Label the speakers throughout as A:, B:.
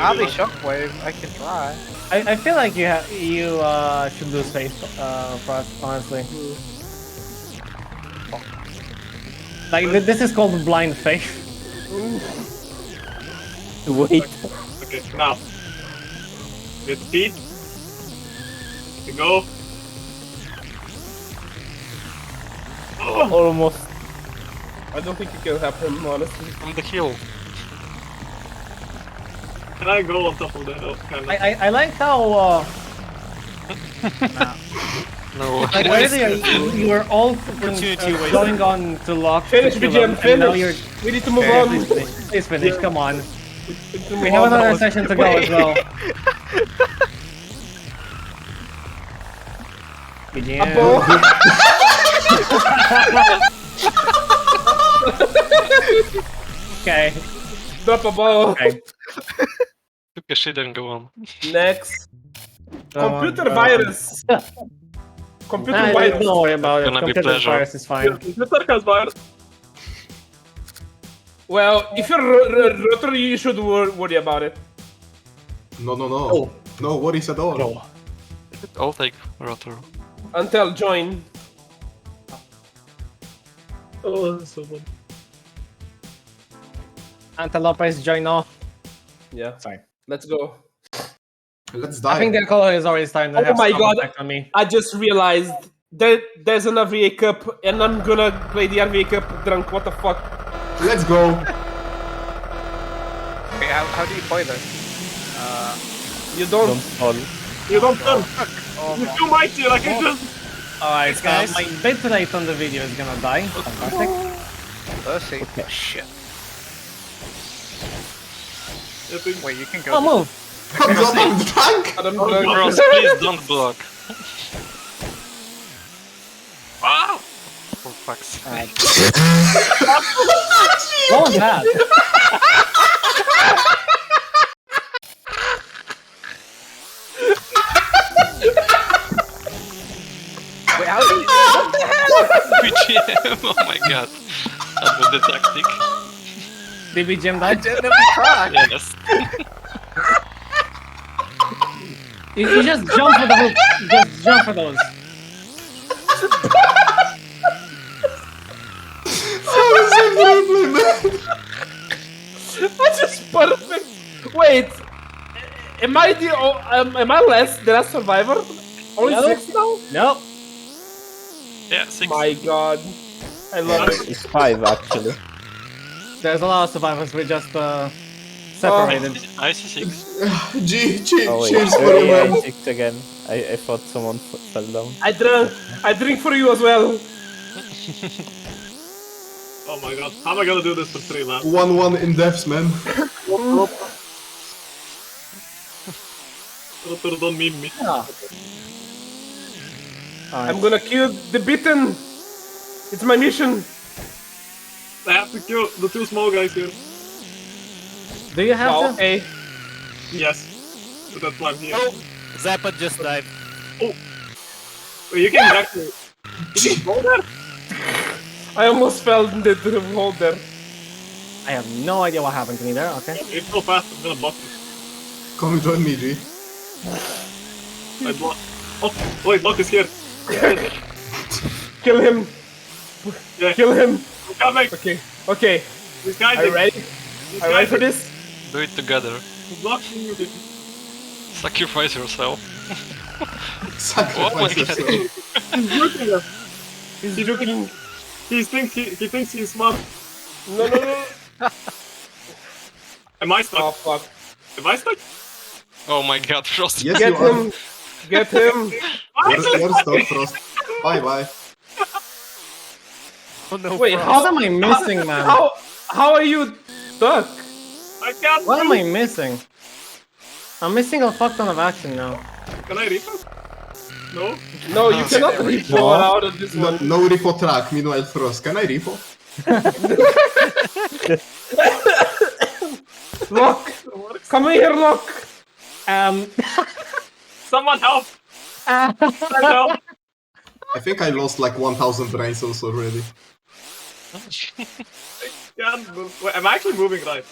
A: I'll be Shockwave. I can try.
B: I, I feel like you have you uh should lose face uh frost honestly. Like th- this is called blind faith.
C: Wait.
D: Okay, now. With speed. To go. Oh,
C: Almost.
E: I don't think it can happen, honestly.
F: On the hill.
D: can I go on top of the hill? Can I?
B: I I, I like how uh,
F: No.
B: like earlier you, you were all freaking,
F: Opportunity
B: uh,
F: wasted.
B: going on to lock
E: Finish,
B: the
E: BGM,
B: and now you're
E: finish. We need to move
A: Okay,
E: on.
B: please finish. Please finish. Come on.
E: We need to
B: We
E: move
B: have
E: on.
B: another session to go as well.
E: Apple.
B: BGM. Okay.
E: Drop a ball.
B: Okay.
F: Took a shit and go on.
E: Next.
B: Come on,
E: Computer
B: go.
E: virus. Computer
B: Nah,
E: virus.
B: don't worry about it.
F: Gonna be
B: Computer
F: pleasure.
B: virus is fine.
E: Computer has virus. Well, if you're r- r- rotary, you should wor- worry about it.
G: No, no, no. No worries at all.
F: I'll take rotor.
E: Until join.
D: Oh, that's so fun.
B: Antelope is join off.
E: Yeah.
B: Sorry.
E: Let's go.
G: Let's
B: I
G: die.
B: think their color is already starting to
E: Oh
B: have
E: my
B: some
E: God.
B: effect on me.
E: I just realized that there's an RVA Cup, and I'm gonna play the RVA Cup drunk. What the fuck?
G: Let's go.
A: Okay, how, how do you play this?
E: You don't.
D: You don't turn. You're too mighty. Like I just.
B: Alright, so
F: guys.
B: my bit tonight on the video is gonna die. Fantastic.
A: Mercy. Oh, Shit.
D: I think.
A: Wait, you can go.
B: Oh, move!
G: I'm not I'm drunk.
E: I don't
F: Ross,
E: know.
F: please don't block. Wow! For fuck's sake.
B: What was that?
A: Wait, how do you...
F: BGM, oh my god. That was the tactic.
B: Did we jam
A: I
B: that?
A: didn't even try.
F: Yes.
B: You, you just jump for the hook. You Just jump for those.
E: That's just perfect. Wait, am I the o- um, am I less the last survivor? Only
B: No.
E: six now?
B: Nope.
F: Yeah, six.
E: My God, I love it.
C: It's five actually.
B: There's a lot of survivors. We're just uh,
F: I
B: separated.
F: see- I see six.
G: Gee, gee,
C: Oh wait.
G: cheers for the
C: Sorry, I
G: man.
C: checked again. I, I thought someone f- fell down.
E: I drink, I drink for you as well.
D: Oh my god. How am I gonna do this for three laps?
G: One one in deaths, man.
D: Rotor don't mean me.
E: I'm gonna kill the beaten. It's my mission.
D: I have to kill the two small guys here.
B: Do you have
E: Wow.
B: to?
E: Hey,
D: Yes. But that's why I'm here.
H: Oh, Zappa just died.
D: Wait, you can back me.
E: I almost fell in the the hole there.
B: I have no idea what happened to me there. Okay.
D: It's so fast. I'm gonna block this.
G: Come join me, G.
D: I block. Oh, wait, block is here.
E: Kill him.
D: Yeah.
E: Kill him.
D: I'm coming.
E: Okay. Okay.
D: This guy.
E: Are you ready?
D: This
E: Are you
D: guy
E: ready for this?
F: Do it together.
D: blocking you.
F: Sacrifice yourself.
G: Sacrifice
F: Oh my God.
G: yourself.
E: He's joking.
D: He thinks he, he thinks he's smart.
E: No, no, no.
D: Am I stuck?
E: Oh fuck.
D: Am I stuck?
F: Oh my god, Frost.
G: Yes,
E: Get
G: you are.
E: him. Get him.
G: You're, you're stuck, Frost. Bye bye.
H: Oh no.
E: Wait,
H: Frost.
B: What am I missing, man?
E: How how are you stuck?
D: I can't.
B: What am
D: move.
B: I missing? I'm missing a fuck ton of action now.
D: Can I refund? No.
E: No, you cannot reach
C: No.
E: out of this
G: No,
E: one.
G: no repo track. Meanwhile, Frost, can I repo?
E: Lock! Come here, Lock!
B: Um,
D: Someone help! Someone help!
G: I think I lost like 1,000 brain cells already.
D: Can't move. Wait, am I actually moving right?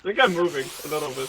D: I think I'm moving a little bit.